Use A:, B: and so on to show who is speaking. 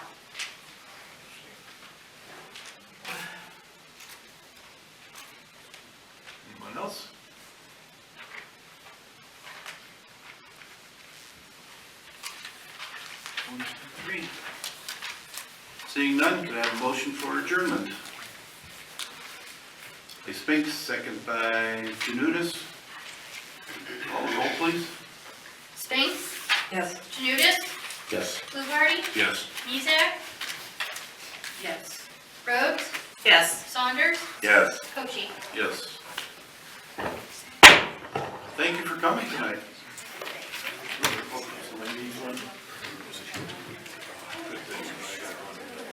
A: Agreed. Seeing none, could I have a motion for adjournment? By Spinks, second by Janutus. Call the roll, please.
B: Spinks,
C: Yes.
B: Janutus,
A: Yes.
B: Fluharty,
A: Yes.
B: Mizek? Yes. Rhodes,
C: Yes.
B: Saunders,
A: Yes.
B: Cochee.
A: Yes. Thank you for coming tonight.